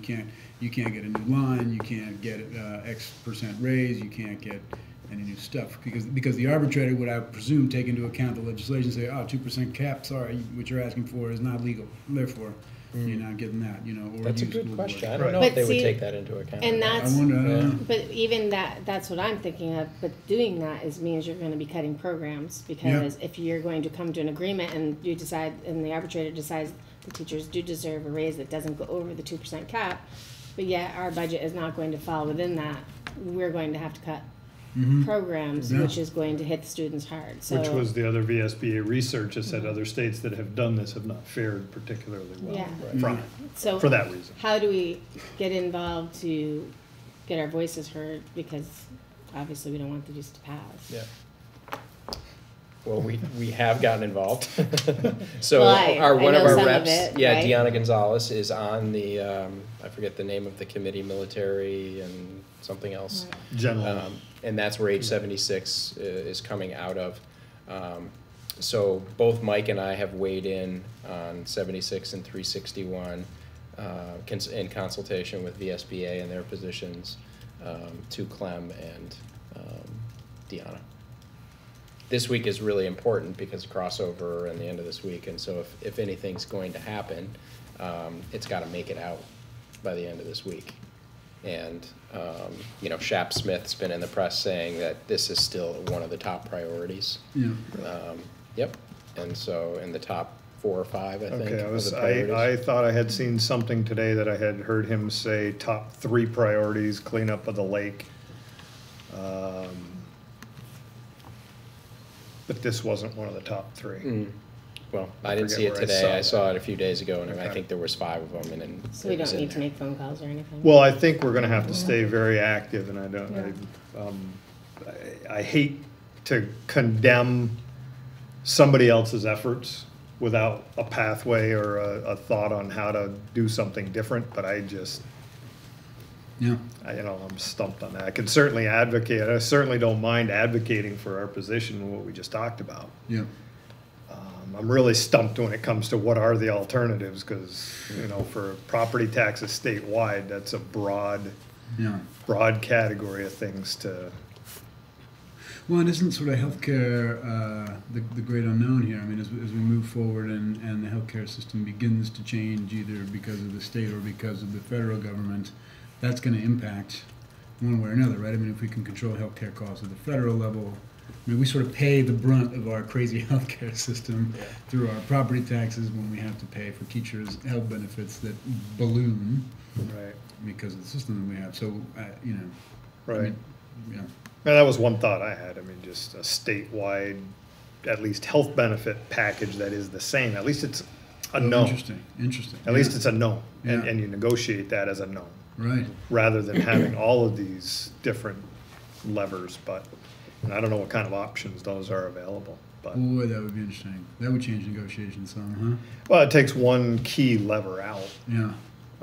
can't, you can't get a new line, you can't get uh, X percent raise, you can't get any new stuff. Because, because the arbitrator would, I presume, take into account the legislation, say, oh, two percent cap, sorry, what you're asking for is not legal, therefore, you're not getting that, you know, or. Hmm. That's a use good school board. question. I don't Right. know if But they would see, take that into account. and I that's- wonder, uh, I don't Yeah. know. But even that, that's what I'm thinking of, but doing that is means you're gonna be cutting programs, because if you're going to come to an agreement and you decide, and the arbitrator decides the teachers do deserve a raise that doesn't go over the two percent cap, but yet our budget is not going to fall within that, we're going to have to cut programs, Yeah. which is going to hit the students hard, so. Mm-hmm. Which was the other VSBA research that said other states that have done this have not fared particularly well Yeah. from it, So for that reason. How do we get involved to get our voices heard, because obviously we don't want the use to pass. Yeah. Well, we, we have gotten involved. So Well, I- our, I one of know our some of reps, it, yeah, right? Deanna Gonzalez is on the, um, I forget the name of the committee, military and something else. General, Um, and that's where age seventy-six i- is coming out of. Um, so both Mike and I have weighed in on seventy-six and three sixty-one, uh, cons- in consultation with VSBA and their positions, um, to Clem and, um, Deanna. This week is really important because crossover and the end of this week, and so if, if anything's going to happen, um, it's gotta make it out by the end of this week. And, um, you know, Shap Smith's been in the press saying that this is still one of the top priorities. Yeah. Um, yep, and so in the top four or five, I think. okay, I of was, the I, I priorities. thought I had seen something today that I had heard him say, top three priorities, cleanup of the lake. Um, But this wasn't one of the top three. Mm. Well, I I didn't see forget it where today, I saw I that. saw it a few days ago, and I Okay. think there was five of them, and then. So we it was don't in need to there. make phone calls or anything. Well, I think we're gonna have to stay very active, and I don't, I, um, I, I hate to condemn somebody else's efforts without a pathway or a, a thought on how to do something different, but I just, Yeah. I, you know, I'm stumped on that. I can certainly advocate, I certainly don't mind advocating for our position, and what we just talked about. Yeah. Um, I'm really stumped when it comes to what are the alternatives, because, you know, for property taxes statewide, that's a broad Yeah. broad category of things to. Well, and isn't sort of healthcare uh, the, the great unknown here? I mean, as, we- as we move forward and, and the healthcare system begins to change either because of the state or because of the federal government, that's going to impact one way or another, right? I mean, if we can control healthcare costs at the federal level, I mean, we sort of pay the brunt of our crazy healthcare system through our property taxes when we have to pay for teachers' health benefits that balloon Right. because of the system that we have. So, uh, you know, I Right. mean, yeah. Now, that was one thought I had. I mean, just a statewide, at least health benefit package that is the same. At least it's a known. Interesting. Interesting. At least it's a known. And, Yeah. and you negotiate that as a known Right. rather than having all of these different levers. But and I don't know what kind of options those are available. But Boy, that would be interesting. That would change negotiations some, well, it takes one key lever out, huh? Yeah,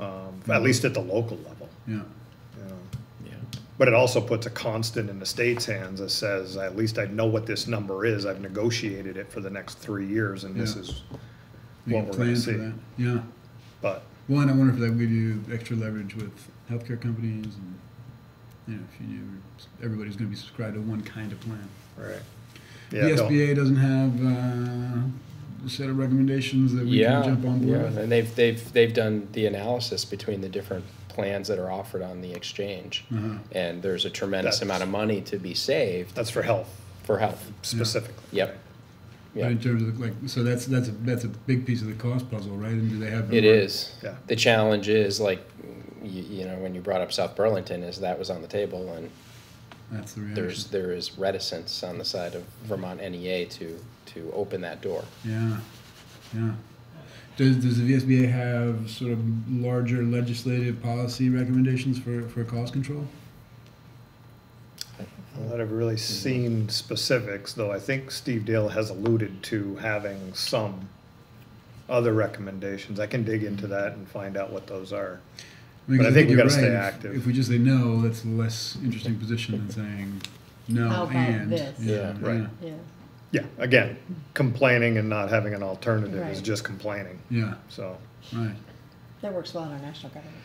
um, at Mm-hmm. least at the local level. yeah, You know. Yeah. But it also puts a constant in the state's hands that says, at least I know what this number is, I've negotiated it for the next three years, and this Yeah. is we can what we're gonna plan for see. that, yeah. But, Well, and I wonder if that would give you extra leverage with healthcare companies and, you know, if you knew everybody's gonna be subscribed to one kind of plan. right. The Yeah, don't- SBA doesn't have, uh, a set of recommendations that we Yeah, can jump on board yeah, with. And they've, they've, they've done the analysis between the different plans that are offered on the exchange. Uh-huh. And there's a tremendous That's- amount of money to be saved that's for health for health. specifically. Yep. But Yeah, in terms of like, so that's, that's, a that's a big piece of the cost puzzle, right? And do they have? the it mar- is. Yeah. The challenge is like, you, you know, when you brought up South Burlington is that was on the table and That's the there's, reaction, there is reticence on the side of Vermont NEA to, to open that door. yeah, yeah. Does, does the VSBA have sort of larger legislative policy recommendations for, for cost control? I've not really seen specifics, though I think Steve Dale has alluded to having some other recommendations. I can dig into that and find out what those are. mean, But I 'cause think we you're gotta stay right. If- active. If we just say no, that's a less interesting position than saying How no about and. this? Yeah. Right. Yeah, Yeah, again, complaining and not having an alternative is Right. just complaining, Yeah, so. right. That works well in our national government.